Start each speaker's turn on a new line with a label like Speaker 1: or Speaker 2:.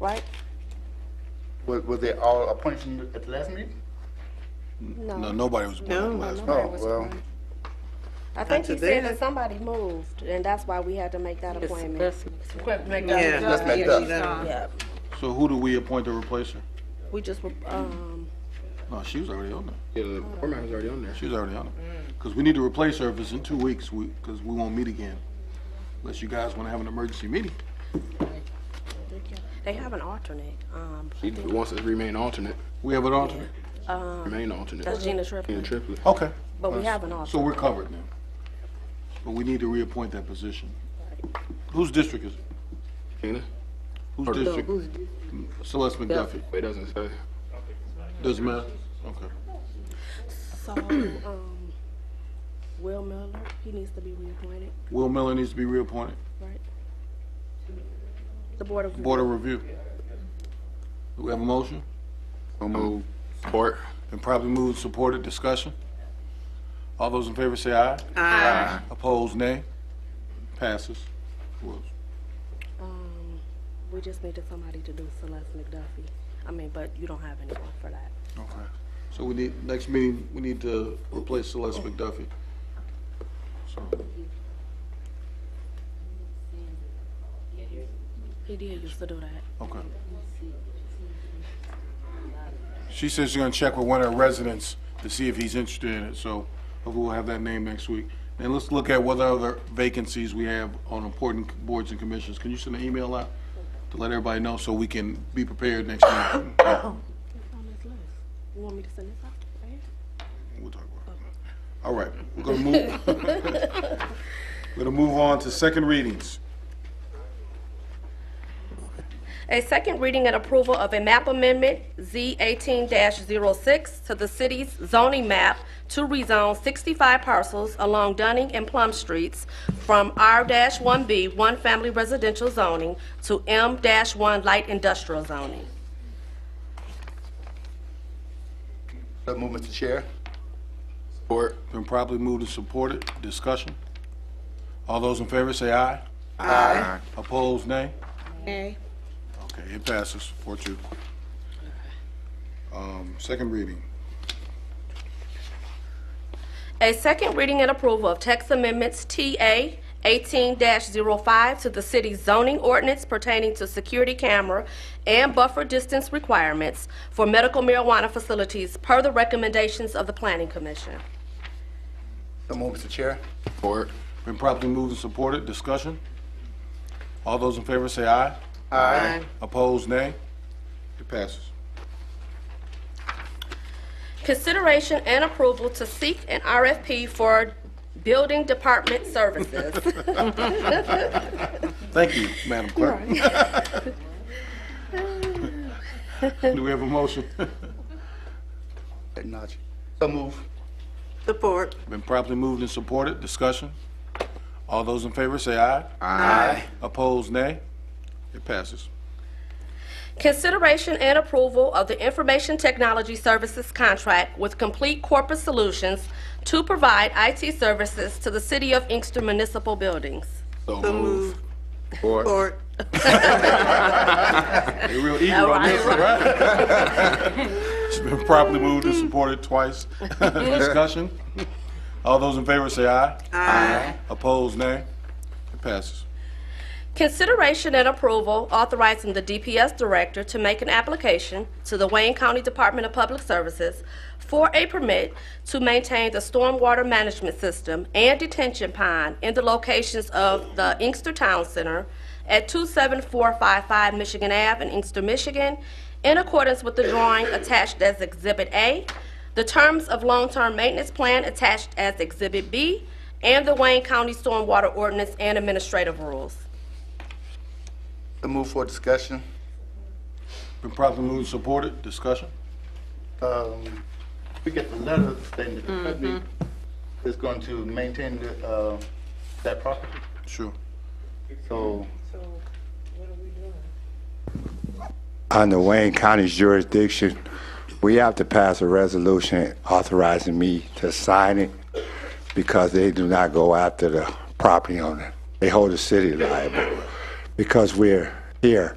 Speaker 1: right?
Speaker 2: Was, was they all appointed from the- at the last meeting?
Speaker 1: No.
Speaker 3: No, nobody was appointed
Speaker 4: No.
Speaker 3: last.
Speaker 1: nobody
Speaker 2: Oh,
Speaker 1: was
Speaker 2: well.
Speaker 1: appointed. I think he
Speaker 4: today.
Speaker 1: said that somebody moved, and that's why we had to make that appointment.
Speaker 4: Yeah.
Speaker 2: Let's make that.
Speaker 1: Yeah,
Speaker 3: So who do we appoint to replace her?
Speaker 1: we just, were, um,
Speaker 3: No, she was already on there.
Speaker 5: Yeah, the format was already on there.
Speaker 3: She was already on there. Because we need to replace her if it's in two weeks, we, because we won't meet again. Unless you guys want to have an emergency meeting.
Speaker 1: they have an alternate, um,
Speaker 5: She wants to remain alternate,
Speaker 3: We have an alternate?
Speaker 5: remain alternate.
Speaker 1: that's Gina
Speaker 5: Gina
Speaker 1: Triplett,
Speaker 5: Triplett.
Speaker 3: Okay.
Speaker 1: but we have an alternate.
Speaker 3: So we're covered now. But we need to reappoint that position. Whose district is it?
Speaker 5: Gina?
Speaker 3: Whose district? Celeste McDuffie.
Speaker 5: But it doesn't say.
Speaker 3: Doesn't matter? Okay.
Speaker 1: So, um, Will Miller, he needs to be reappointed,
Speaker 3: Will Miller needs to be reappointed.
Speaker 1: right? The Board of,
Speaker 3: Board of Review. Do we have a motion?
Speaker 5: I'll move. Support.
Speaker 3: Been properly moved, supported, discussion? All those in favor say aye. Aye. Opposed, nay? Passes. Who else?
Speaker 1: um, we just needed somebody to do Celeste McDuffie. I mean, but you don't have anyone for that.
Speaker 3: Okay. So we need, next meeting, we need to replace Celeste McDuffie. So,
Speaker 1: He did used to do that.
Speaker 3: okay. She says she's gonna check with one of her residents to see if he's interested in it, so hopefully we'll have that name next week. And let's look at what other vacancies we have on important boards and commissions. Can you send an email out to let everybody know so we can be prepared next meeting?
Speaker 1: It's on this list. You want me to send this out? Right here?
Speaker 3: We'll talk about it. All right, we're gonna move, we're gonna move on to second readings.
Speaker 1: A second reading and approval of a map amendment, Z eighteen 6 to the city's zoning map to rezone sixty-five parcels along Dunning and Plum Streets from R one B, one-family residential zoning, to M one light industrial zoning.
Speaker 2: So move, Mr. Chair.
Speaker 5: Support.
Speaker 3: Been properly moved and supported, discussion. All those in favor say aye. Aye. Opposed, nay?
Speaker 4: Nay.
Speaker 3: Okay, it passes, four two. Um, second reading,
Speaker 1: A second reading and approval of text amendments TA 18-05 to the city's zoning ordinance pertaining to security camera and buffer distance requirements for medical marijuana facilities per the recommendations of the Planning Commission.
Speaker 2: So move, Mr. Chair.
Speaker 5: Support.
Speaker 3: been properly moved and supported, discussion. All those in favor say aye.
Speaker 4: Aye.
Speaker 3: Opposed, nay? It passes.
Speaker 1: Consideration and approval to seek an RFP for building department services.
Speaker 3: Thank you, Madam Clerk. Do we have a motion?
Speaker 2: Acknowledge. So move.
Speaker 4: Support.
Speaker 3: Been properly moved and supported, discussion. All those in favor say aye.
Speaker 2: Aye.
Speaker 3: Opposed, nay. It passes.
Speaker 1: Consideration and approval of the Information Technology Services Contract with Complete Corporate Solutions to provide IT services to the City of Inkster Municipal Buildings.
Speaker 5: So
Speaker 4: So
Speaker 5: move.
Speaker 4: move.
Speaker 5: Support.
Speaker 4: Support.
Speaker 3: They real eager on this, one, right? It's been properly moved and supported twice, discussion. All those in favor say aye. Aye. Opposed, nay. It passes.
Speaker 1: Consideration and approval authorizing the DPS Director to make an application to the Wayne County Department of Public Services for a permit to maintain the stormwater management system and detention pond in the locations of the Inkster Town Center at 27455 Michigan Ave in Inkster, Michigan, in accordance with the drawing attached as Exhibit A, the terms of long-term maintenance plan attached as Exhibit B, and the Wayne County Stormwater Ordinance and Administrative Rules.
Speaker 2: So move for discussion.
Speaker 3: Been properly moved and supported, discussion.
Speaker 2: Um, we get the letter saying that the company is going to maintain the, uh, that property.
Speaker 3: Sure.
Speaker 2: So
Speaker 6: under Wayne County's jurisdiction, we have to pass a resolution authorizing me to sign it because they do not go after the property owner. They hold the city liable. Because we're here,